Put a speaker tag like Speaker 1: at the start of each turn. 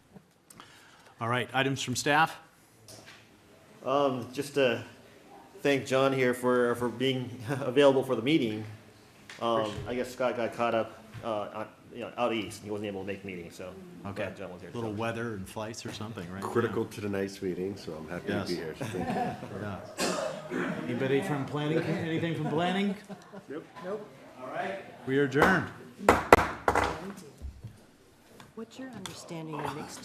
Speaker 1: All right, items from staff?
Speaker 2: Um, just to thank John here for, for being available for the meeting. Um, I guess Scott got caught up, uh, on- you know, out east, and he wasn't able to make the meeting, so. I'm
Speaker 1: Okay.
Speaker 2: glad John was here. to
Speaker 1: Little
Speaker 2: help.
Speaker 1: weather and flights or something, right?
Speaker 3: critical to tonight's meeting, so I'm happy to
Speaker 1: Yes.
Speaker 3: be here. So thank you.
Speaker 1: Yeah. Yeah. Anybody from planning, anything from planning? Nope. Nope. All right. We are adjourned.
Speaker 4: What's your understanding of mixed